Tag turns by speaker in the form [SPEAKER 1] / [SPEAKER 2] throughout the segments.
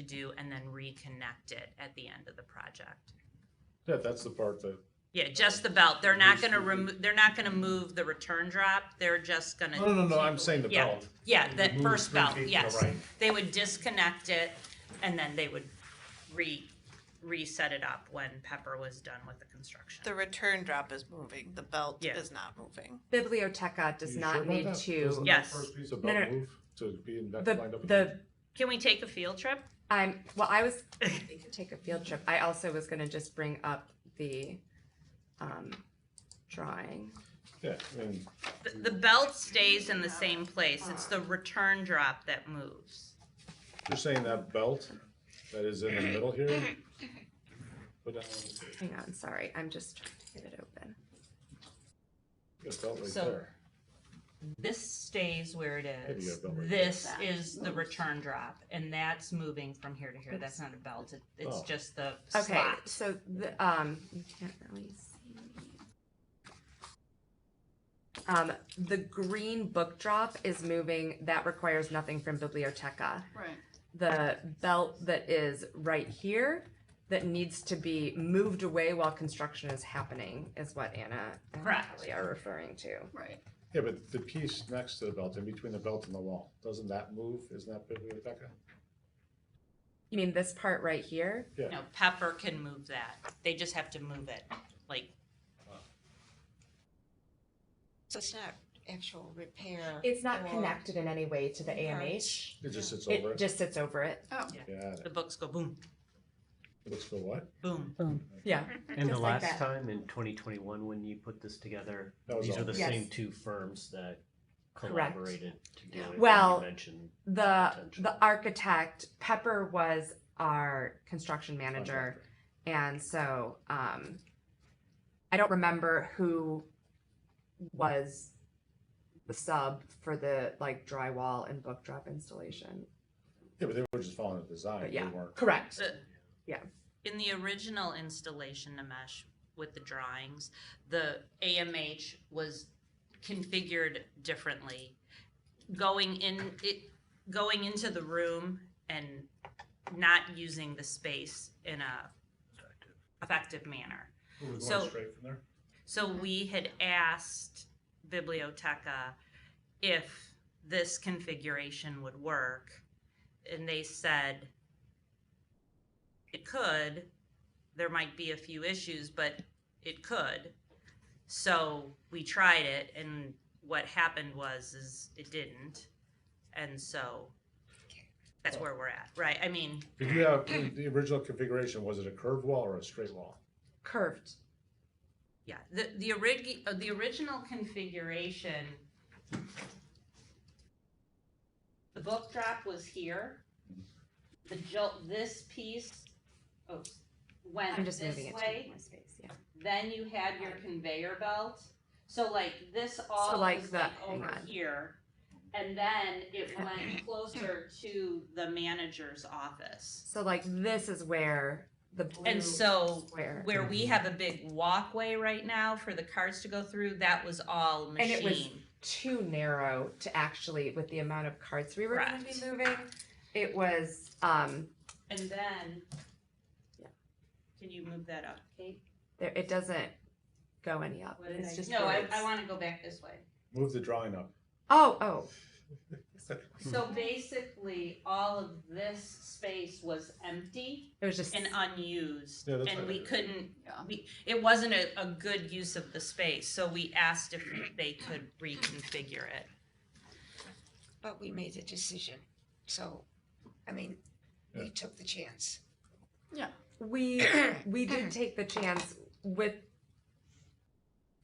[SPEAKER 1] to do and then reconnect it at the end of the project.
[SPEAKER 2] Yeah, that's the part that,
[SPEAKER 1] Yeah, just the belt. They're not gonna remove, they're not gonna move the return drop. They're just gonna.
[SPEAKER 2] no, no, no, no, I'm saying the
[SPEAKER 1] Yeah.
[SPEAKER 2] belt.
[SPEAKER 1] Yeah, the
[SPEAKER 2] Remove
[SPEAKER 1] first
[SPEAKER 2] three
[SPEAKER 1] belt,
[SPEAKER 2] feet to the
[SPEAKER 1] yes.
[SPEAKER 2] right.
[SPEAKER 1] They would disconnect it and then they would re, reset it up when Pepper was done with the construction.
[SPEAKER 3] The return drop is moving, the belt
[SPEAKER 1] Yeah.
[SPEAKER 3] is not moving.
[SPEAKER 4] Biblioteca does
[SPEAKER 2] You sure
[SPEAKER 4] not
[SPEAKER 2] about
[SPEAKER 4] need
[SPEAKER 2] that?
[SPEAKER 4] to,
[SPEAKER 2] Doesn't that
[SPEAKER 1] Yes.
[SPEAKER 2] First piece of
[SPEAKER 4] No, no,
[SPEAKER 2] belt move to be in that
[SPEAKER 4] the,
[SPEAKER 2] lined up.
[SPEAKER 4] the,
[SPEAKER 1] Can we take a field trip?
[SPEAKER 4] I'm, well, I was, we could take a field trip. I also was gonna just bring up the, um, drawing.
[SPEAKER 2] Yeah, and
[SPEAKER 1] The, the belt stays in the same place. It's the return drop that moves.
[SPEAKER 2] you're saying that belt that is in the middle here? uh, Put that one-
[SPEAKER 4] Hang on, sorry, I'm just trying to get it open.
[SPEAKER 2] get a belt right
[SPEAKER 1] So-
[SPEAKER 2] there.
[SPEAKER 1] This stays where it
[SPEAKER 2] Maybe you
[SPEAKER 1] is.
[SPEAKER 2] have belt right there.
[SPEAKER 1] This is the return drop and that's moving from here to here. That's not a belt. It- It's
[SPEAKER 2] Oh.
[SPEAKER 1] just the
[SPEAKER 4] Okay,
[SPEAKER 1] slot.
[SPEAKER 4] so the, um, you can't really see. Um, the green book drop is moving, that requires nothing from Biblioteca.
[SPEAKER 3] Right.
[SPEAKER 4] The belt that is right here that needs to be moved away while construction is happening is what Anna and
[SPEAKER 1] Correct.
[SPEAKER 4] Kelly are referring to.
[SPEAKER 3] Right.
[SPEAKER 2] Yeah, but the piece next to the belt, in between the belt and the wall, doesn't that move? Isn't that biblioteca?
[SPEAKER 4] You mean this part right here?
[SPEAKER 2] Yeah.
[SPEAKER 1] No, Pepper can move that. They just have to move it, like
[SPEAKER 3] So it's not actual repair.
[SPEAKER 4] It's not
[SPEAKER 3] or-
[SPEAKER 4] connected in any way to the AMH.
[SPEAKER 2] It just sits over
[SPEAKER 4] It
[SPEAKER 2] it?
[SPEAKER 4] just sits over it.
[SPEAKER 3] Oh,
[SPEAKER 2] Yeah,
[SPEAKER 1] the books go boom,
[SPEAKER 2] it looks for what?
[SPEAKER 1] boom.
[SPEAKER 4] Yeah.
[SPEAKER 5] And the
[SPEAKER 4] Just like that.
[SPEAKER 5] last time in 2021, when you put this together,
[SPEAKER 2] That was
[SPEAKER 5] these are
[SPEAKER 2] all.
[SPEAKER 5] the
[SPEAKER 4] Yes.
[SPEAKER 5] same two firms that
[SPEAKER 4] Correct.
[SPEAKER 5] collaborated to do it. and you
[SPEAKER 4] Well,
[SPEAKER 5] mentioned-
[SPEAKER 4] The
[SPEAKER 5] Potential.
[SPEAKER 4] the architect Pepper was our construction manager,
[SPEAKER 2] Contractor.
[SPEAKER 4] and so um, I don't remember who was the sub for the like drywall and book drop installation.
[SPEAKER 2] Yeah, but they were just following the design.
[SPEAKER 4] But
[SPEAKER 2] They
[SPEAKER 4] yeah,
[SPEAKER 2] weren't.
[SPEAKER 4] correct.
[SPEAKER 1] The-
[SPEAKER 4] Yeah.
[SPEAKER 1] In the original installation, Namesh, with the drawings, the AMH was configured differently. Going in, it, going into the room and not using the space in a effective manner.
[SPEAKER 2] We're going
[SPEAKER 1] So-
[SPEAKER 2] straight from there?
[SPEAKER 1] So we had asked Biblioteca if this configuration would work, and they said it could. There might be a few issues, but it could. So we tried it, and what happened was is it didn't, and so that's where we're at, right? I mean,
[SPEAKER 2] Did you have, the original configuration, was it a curved wall or a straight wall?
[SPEAKER 4] Curved.
[SPEAKER 1] Yeah, the, the orig, uh, the original configuration. The book drop was here. The jolt, this piece, oh,
[SPEAKER 4] I'm
[SPEAKER 1] went
[SPEAKER 4] just
[SPEAKER 1] this
[SPEAKER 4] moving it to make
[SPEAKER 1] way,
[SPEAKER 4] more space. Yeah.
[SPEAKER 1] then you had your conveyor belt. So like this all
[SPEAKER 4] like
[SPEAKER 1] was
[SPEAKER 4] the-
[SPEAKER 1] like
[SPEAKER 4] hang
[SPEAKER 1] over
[SPEAKER 4] on.
[SPEAKER 1] here. And then it went closer to the manager's office.
[SPEAKER 4] So like this is where the blue
[SPEAKER 1] And so
[SPEAKER 4] square.
[SPEAKER 1] where we have a big walkway right now for the cars to go through, that was all
[SPEAKER 4] And it was-
[SPEAKER 1] machine.
[SPEAKER 4] too narrow to actually with the amount of carts we were going to
[SPEAKER 1] Correct.
[SPEAKER 4] be moving. It was um
[SPEAKER 1] And then,
[SPEAKER 4] Yeah.
[SPEAKER 1] can you move that up, Kate?
[SPEAKER 4] there it doesn't go any up.
[SPEAKER 1] What did
[SPEAKER 4] Uh, It's
[SPEAKER 1] I-
[SPEAKER 4] just
[SPEAKER 1] No, I,
[SPEAKER 4] words.
[SPEAKER 1] I wanna go back this way.
[SPEAKER 2] Move the drawing up.
[SPEAKER 4] Oh, oh, Hmm.
[SPEAKER 1] So basically, all of this space was empty
[SPEAKER 4] it was just
[SPEAKER 1] and unused.
[SPEAKER 2] Yeah, that's
[SPEAKER 1] And
[SPEAKER 2] not
[SPEAKER 1] we
[SPEAKER 2] good.
[SPEAKER 1] couldn't,
[SPEAKER 3] Yeah.
[SPEAKER 1] we, it wasn't a, a good use of the space, so we asked if they could reconfigure it.
[SPEAKER 6] But we made the decision, so, I mean, we took the chance.
[SPEAKER 4] we we did take the chance with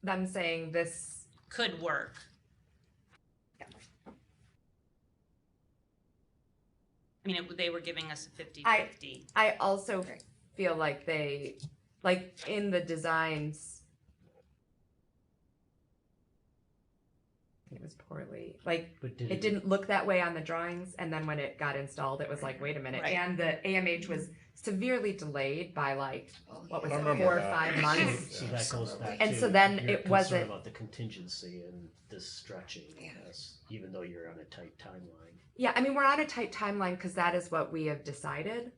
[SPEAKER 4] them saying this
[SPEAKER 1] Could work. I mean, it- they were giving us a fifty-fifty.
[SPEAKER 4] I also
[SPEAKER 6] Right.
[SPEAKER 4] feel like they, like in the designs, it was poorly, like,
[SPEAKER 5] But did
[SPEAKER 4] it didn't look that way on the drawings, and then when it got installed, it was like, wait a minute,
[SPEAKER 3] Right.
[SPEAKER 4] and the AMH was severely delayed by like what was
[SPEAKER 2] I
[SPEAKER 4] it,
[SPEAKER 2] remember
[SPEAKER 4] four or
[SPEAKER 2] that.
[SPEAKER 4] five months?
[SPEAKER 5] So that goes back
[SPEAKER 4] And
[SPEAKER 5] to
[SPEAKER 4] so then
[SPEAKER 5] your
[SPEAKER 4] it
[SPEAKER 5] concern
[SPEAKER 4] wasn't-
[SPEAKER 5] about the contingency and this stretching,
[SPEAKER 6] Yeah.
[SPEAKER 5] yes, even though you're on a tight timeline.
[SPEAKER 4] Yeah, I mean, we're on a tight timeline because that is what we have decided.